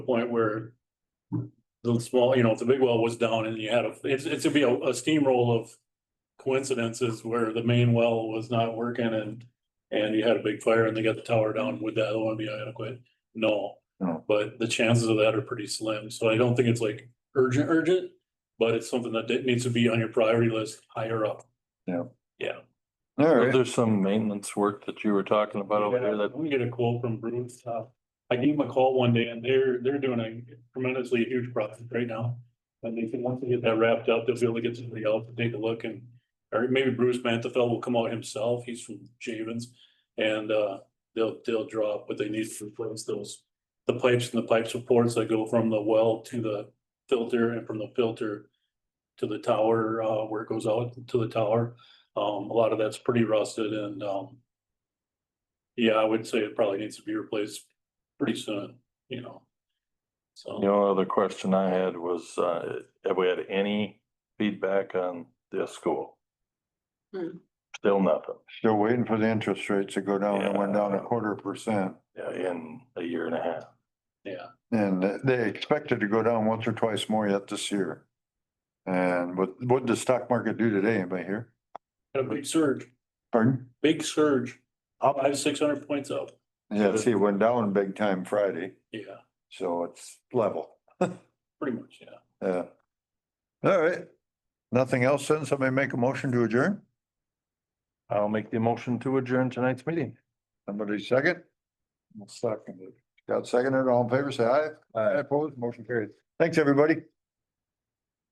the point where the small, you know, if the big well was down and you had a, it's, it's would be a a steamroll of coincidences where the main well was not working and, and you had a big fire and they got the tower down, would that other one be adequate? No. No. But the chances of that are pretty slim, so I don't think it's like urgent, urgent, but it's something that that needs to be on your priority list higher up. All But right, There's some maintenance work that you were talking about over there Yeah, that, We get a quote from Bruins Top. I gave them a call one day and they're, they're doing a tremendously huge project right now. And they think once they get that wrapped up, they'll be able to get somebody else to take a look and, or maybe Bruce Mantefeld will come out himself. He's from Javens. And, uh, they'll, they'll draw up what they need to replace those, the pipes and the pipe supports that go from the well to the filter and from the filter to the tower, uh, where it goes out to the tower. Um, a lot of that's pretty rusted and, um, yeah, I would say it probably needs to be replaced pretty soon, you know. the So, only other question I had was, uh, have we had any feedback on this school? Hmm. Still nothing, still waiting for the interest rates to go down. It went down a quarter percent. yeah, in a year and a half. yeah, And they expected to go down once or twice more yet this year. And what, what did the stock market do today? Anybody here? had a big surge, Pardon? big surge, up five, six hundred points up, Yeah, see, it went down big time Friday, yeah, so it's level. pretty much, yeah. Yeah. Uh, All right. Nothing else then? Somebody make a motion to adjourn? I'll make the motion to adjourn tonight's meeting. Somebody second? Seconded. Got seconded. All in favor, say aye. Aye. Opposed, motion carries. Thanks, everybody.